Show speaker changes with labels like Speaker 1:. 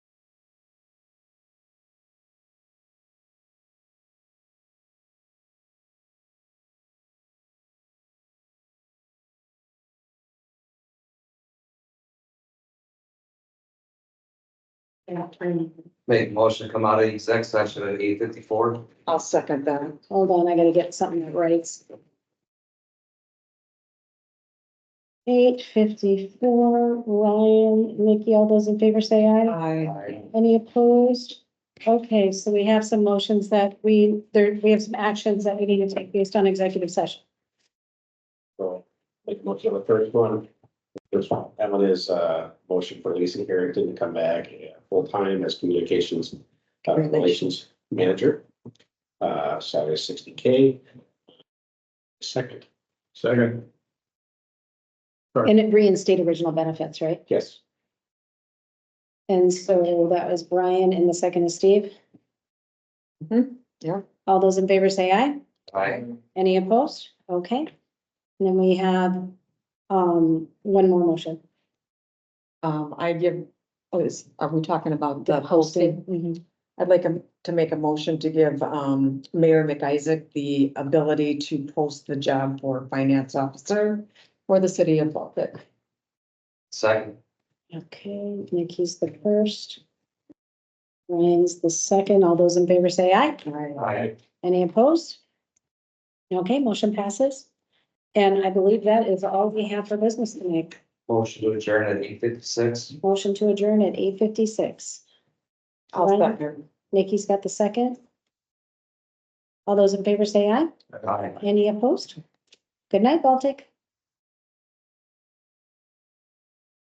Speaker 1: Make a motion to come out of exec session at eight fifty-four.
Speaker 2: I'll second that.
Speaker 3: Hold on, I gotta get something that writes. Eight fifty-four, Ryan, Nikki, all those in favor say aye.
Speaker 2: I,
Speaker 3: Any opposed? Okay, so we have some motions that we, there, we have some actions that we need to take based on executive session.
Speaker 4: So, make a motion on the first one. First one, that one is uh motion for Lisa Harrington to come back uh, full-time as communications uh,
Speaker 2: Relations.
Speaker 4: relations manager. Uh, salary sixty K. Second. Second.
Speaker 3: And it reinstate original benefits, right?
Speaker 4: Yes.
Speaker 3: And so that was Brian and the second is Steve.
Speaker 2: Mhm, yeah.
Speaker 3: All those in favor say aye.
Speaker 1: Aye.
Speaker 3: Any opposed? Okay. And then we have, um, one more motion.
Speaker 2: um, I give, oh, is, are we talking about the posting?
Speaker 3: Mhm.
Speaker 2: I'd like him to make a motion to give, um, Mayor McIsaac the ability to post the job for finance officer for the city of Baltic.
Speaker 1: Second.
Speaker 3: Okay, Nikki's the first. Ryan's the second. All those in favor say aye.
Speaker 1: Aye.
Speaker 3: Any opposed? Okay, motion passes. And I believe that is all we have for business tonight.
Speaker 1: Motion to adjourn at eight fifty-six.
Speaker 3: Motion to adjourn at eight fifty-six.
Speaker 2: I'll
Speaker 3: Right.
Speaker 2: second.
Speaker 3: Nikki's got the second. All those in favor say aye.
Speaker 1: Aye.
Speaker 3: Any opposed? Good night, Baltic.